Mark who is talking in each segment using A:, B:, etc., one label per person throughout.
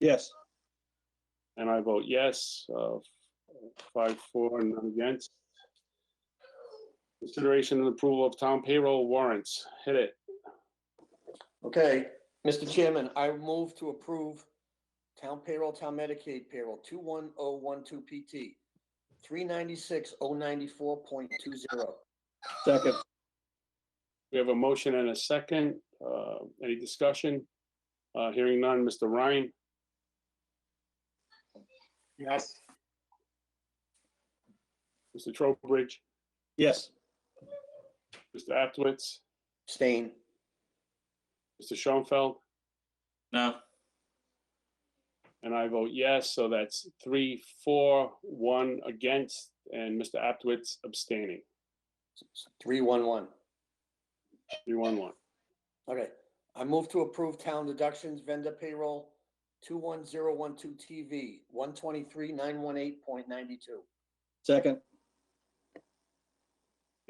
A: Yes.
B: And I vote yes, uh, five, four, and none against. Consideration and approval of town payroll warrants. Hit it.
C: Okay, Mr. Chairman, I move to approve town payroll, town Medicaid payroll, two one oh one two PT, three ninety-six oh ninety-four point two zero.
A: Second.
B: We have a motion and a second. Uh, Any discussion? Uh, Hearing none. Mr. Ryan?
D: yes,
B: Mr. Trowbridge?
A: Yes.
B: Mr. Aptwitz?
C: Stain,
B: Mr. Schoenfeld?
E: no,
B: And I vote yes, so that's three, four, one against, and Mr. Aptwitz abstaining.
C: three one one.
B: Three, one, one.
C: Okay, I move to approve town deductions vendor payroll, two one zero one two TV, one twenty-three nine one eight point ninety-two.
A: Second.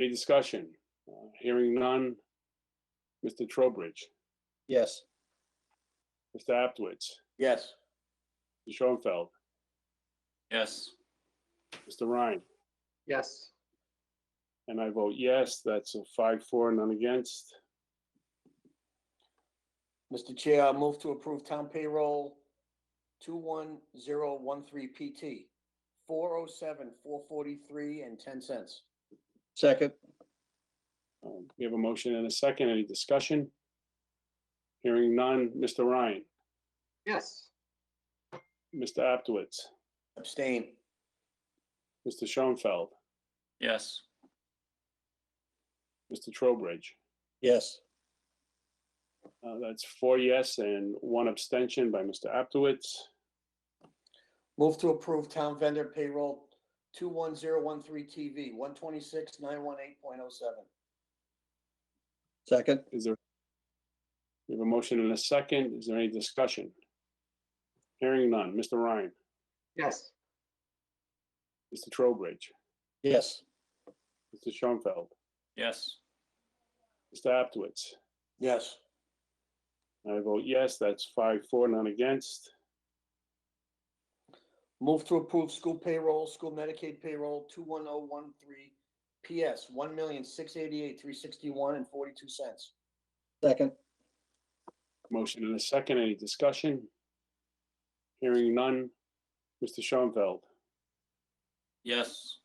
B: Any discussion? Uh, Hearing none. Mr. Trowbridge,
A: Yes.
B: Mr. Aptwitz,
C: Yes,
B: Mr. Schoenfeld,
E: yes,
B: Mr. Ryan,
D: yes,
B: and I vote yes, that's a five, four, none against.
C: Mr. Chair, I move to approve town payroll, two one zero one three PT, four oh seven four forty-three and ten cents.
A: Second.
B: Um, We have a motion and a second. Any discussion? Hearing none. Mr. Ryan,
D: yes,
B: Mr. Aptwitz,
C: Abstain.
B: Mr. Schoenfeld,
E: yes,
B: Mr. Trowbridge.
A: Yes.
B: Uh, That's four yes and one abstention by Mr. Aptowitz.
C: Move to approve town vendor payroll two one zero one three TV, one twenty-six nine one eight point oh seven.
A: Second.
B: Is there? We have a motion and a second. Is there any discussion? Hearing none. Mr. Ryan,
D: yes,
B: Mr. Trowbridge,
A: Yes.
B: Mr. Schoenfeld,
E: yes,
B: Mr. Aptowitz.
C: Yes.
B: I vote yes, that's five, four, none against.
C: Move to approve school payroll, school Medicaid payroll two one oh one three PS, one million six eighty-eight three sixty-one and forty-two cents.
A: Second.
B: Motion and a second. Any discussion? Hearing none. Mr. Schoenfeld,
E: yes,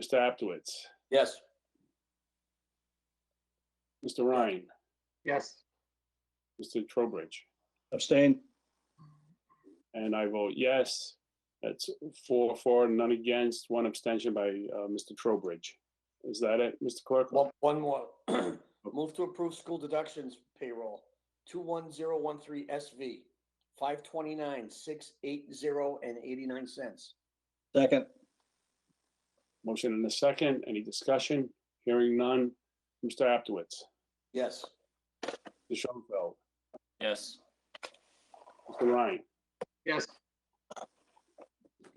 B: Mr. Aptowitz,
C: Yes.
B: Mr. Ryan,
D: yes,
B: Mr. Trowbridge.
A: Abstain.
B: And I vote yes. That's four, four, none against, one abstention by uh, Mr. Trowbridge. Is that it, Mr. Clerk?
C: One, one more. Move to approve school deductions payroll, two one zero one three SV, five twenty-nine, six eight zero and eighty-nine cents.
A: Second.
B: Motion and a second. Any discussion? Hearing none. Mr. Aptowitz,
C: Yes.
B: Mr. Schoenfeld,
E: yes,
B: Mr. Ryan,
D: yes,
B: Mr.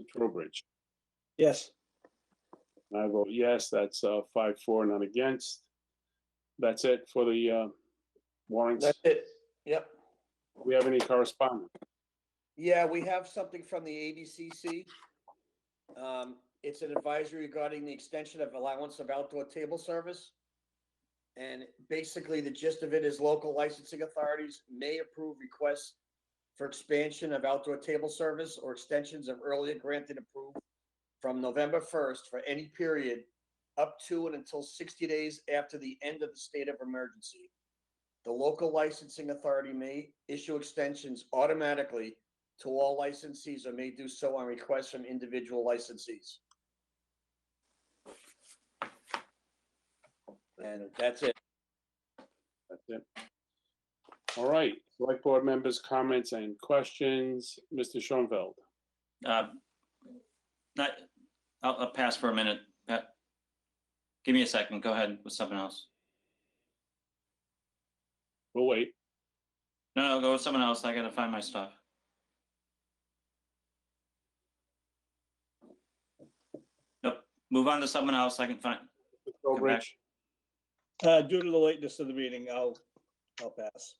B: Trowbridge.
A: Yes.
B: And I vote yes. That's uh, five, four, none against. That's it for the uh, warrants.
C: That's it. Yep.
B: We have any correspondence?
C: Yeah, we have something from the ABCC. Um, it's an advisory regarding the extension of allowance of outdoor table service. And basically, the gist of it is local licensing authorities may approve requests for expansion of outdoor table service or extensions of earlier granted approval from November first for any period up to and until sixty days after the end of the state of emergency. The local licensing authority may issue extensions automatically to all licensees or may do so on request from individual licensees. And that's it.
B: That's it. All right. Select board members' comments and questions. Mr. Schoenfeld.
E: uh, not, I'll, I'll pass for a minute, Pat. Give me a second, go ahead with something else.
B: We'll Oh, wait.
E: No, no, go with someone else, I gotta find my stuff. Nope, move on to someone else, I can find,
B: Trowbridge.
A: Uh, due to the lateness of the meeting, I'll, I'll pass.